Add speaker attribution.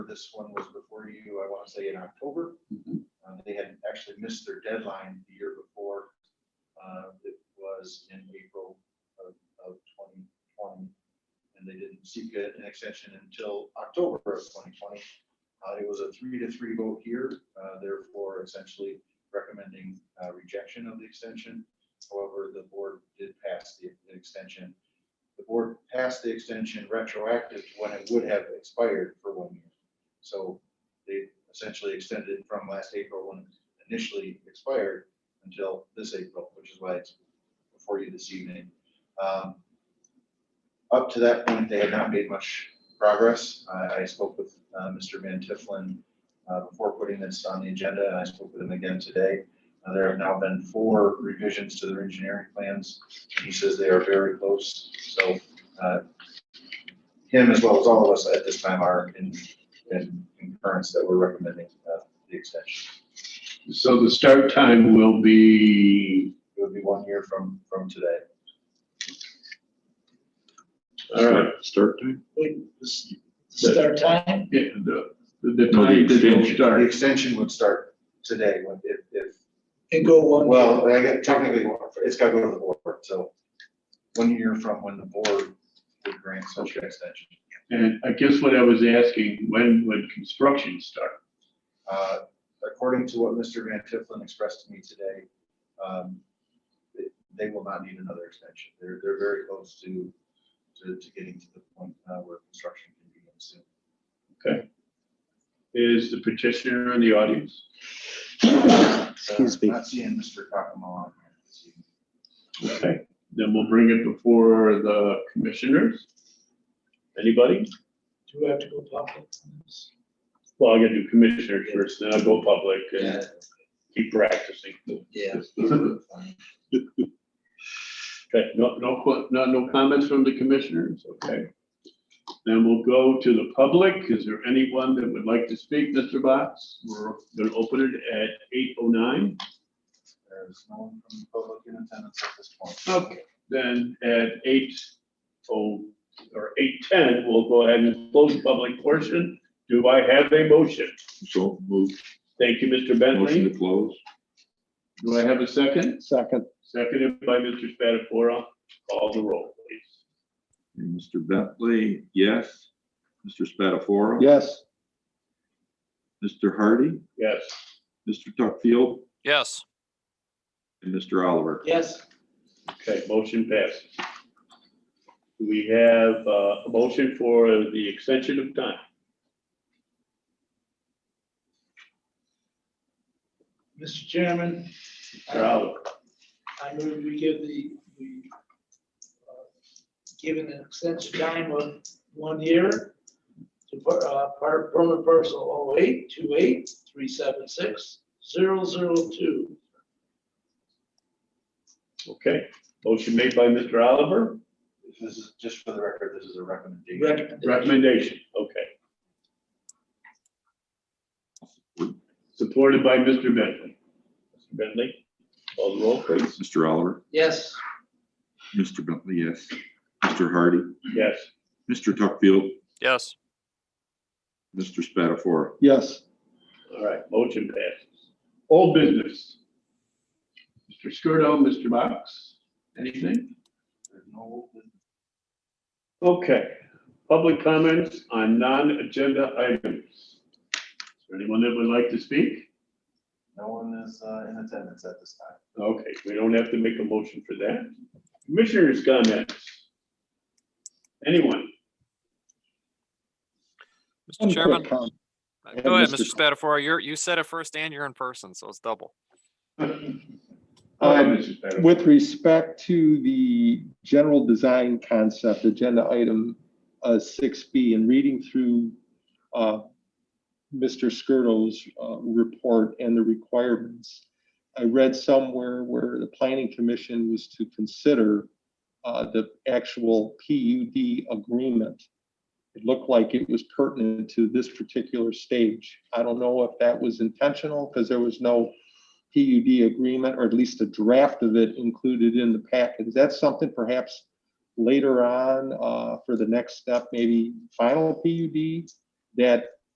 Speaker 1: This one was before you, I want to say in October.
Speaker 2: Mhm.
Speaker 1: Uh, They had actually missed their deadline the year before. Uh, It was in April of of 2020. And they didn't seek a- an extension until October of 2020. Uh, It was a three to three vote here, uh, therefore essentially recommending uh, rejection of the extension. However, the board did pass the the extension. The board passed the extension retroactive to when it would have expired for one year. So they essentially extended from last April when it initially expired until this April, which is why it's before you this evening. Um, Up to that point, they had not made much progress. I, I spoke with uh, Mr. Van Tifflin uh, before putting this on the agenda, and I spoke with him again today. Uh, There have now been four revisions to their engineering plans. He says they are very close, so uh, him as well as all of us at this time are in and concurrence that we're recommending uh, the extension.
Speaker 2: So the start time will be,
Speaker 1: It would be one year from, from today.
Speaker 2: all right,
Speaker 3: Start time?
Speaker 4: Wait, this- start time?
Speaker 2: yeah, the, the
Speaker 3: No, the
Speaker 2: time that it'll
Speaker 3: extension.
Speaker 1: The
Speaker 2: start.
Speaker 1: extension would start today when- if, if,
Speaker 4: And go one.
Speaker 1: well, I got technically, it's got to go to the board, so one year from when the board would grant such an extension.
Speaker 2: And I guess what I was asking, when would construction start?
Speaker 1: Uh, According to what Mr. Van Tifflin expressed to me today, um, it- they will not need another extension. They're, they're very close to, to to getting to the point uh, where construction can begin soon.
Speaker 2: Is the petitioner in the audience?
Speaker 1: Excuse
Speaker 3: me.
Speaker 1: Uh, Not seeing Mr. Cockamo on here this evening.
Speaker 2: Okay, then we'll bring it before the commissioners. Anybody?
Speaker 4: Do we have to go public? on this?
Speaker 2: Well, I gotta do commissioners first, then I'll go public and keep practicing.
Speaker 4: Yeah.
Speaker 2: Okay, no, no, que- no, no comments from the commissioners, okay. Then we'll go to the public. Is there anyone that would like to speak, Mr. Box? We're gonna open it at eight oh nine.
Speaker 1: There's no one from the public in attendance at this point.
Speaker 2: Okay. Then at eight oh, or eight ten, we'll go ahead and close the public portion. Do I have a motion?
Speaker 3: So move,
Speaker 2: Thank you, Mr.
Speaker 3: motion
Speaker 2: Bentley.
Speaker 3: to close.
Speaker 2: Do I have a second?
Speaker 5: Second,
Speaker 2: Seconded by Mr. Spatafora. Call the roll, please.
Speaker 3: And Mr. Bentley, yes. Mr. Spatafora.
Speaker 5: yes,
Speaker 3: Mr. Hardy,
Speaker 2: Yes.
Speaker 3: Mr. Tuckfield,
Speaker 6: Yes,
Speaker 3: and Mr. Oliver.
Speaker 4: Yes,
Speaker 2: Okay, motion passes. Do We have uh, a motion for the extension of time.
Speaker 4: Mr. Chairman. I-
Speaker 2: Mr. Oliver,
Speaker 4: I move we give the, we, uh, given an extension time of one year to, per- uh, per- permit parcel 0828376002.
Speaker 2: okay. Motion made by Mr. Oliver,
Speaker 1: This is, just for the record, this is a recommendation.
Speaker 4: Recommendation.
Speaker 2: recommendation, okay. Supported by Mr. Bentley. Mr. Bentley, call the roll, please.
Speaker 3: Mr. Oliver,
Speaker 4: Yes,
Speaker 3: Mr. Bentley, yes. Mr. Hardy,
Speaker 2: Yes,
Speaker 3: Mr. Tuckfield,
Speaker 6: yes,
Speaker 3: Mr. Spatafora.
Speaker 5: yes,
Speaker 2: all right, motion passes. Old business. Mr. Skirdo, Mr. Box, anything?
Speaker 1: There's no
Speaker 2: Okay, public comments on non-agenda items. Is there anyone that would like to speak?
Speaker 1: No one is uh, in attendance at this time.
Speaker 2: Okay, we don't have to make a motion for that. Commissioners' comments. Anyone?
Speaker 5: One
Speaker 6: Mr.
Speaker 5: quick
Speaker 6: Chairman.
Speaker 5: comment.
Speaker 6: uh, Go ahead,
Speaker 5: Mr.
Speaker 6: Mr. Spatafora. You're, you said it first and you're in person, so it's double.
Speaker 2: Go ahead, Mr. Spadafore.
Speaker 5: With respect to the general design concept, agenda item uh, six B, and reading through uh, Mr. Skirdo's uh, report and the requirements, I read somewhere where the planning commission was to consider uh, the actual PUD agreement. It looked like it was pertinent to this particular stage. I don't know if that was intentional, because there was no PUD agreement, or at least a draft of it included in the packet. Is that something perhaps later on uh, for the next step, maybe final PUD? That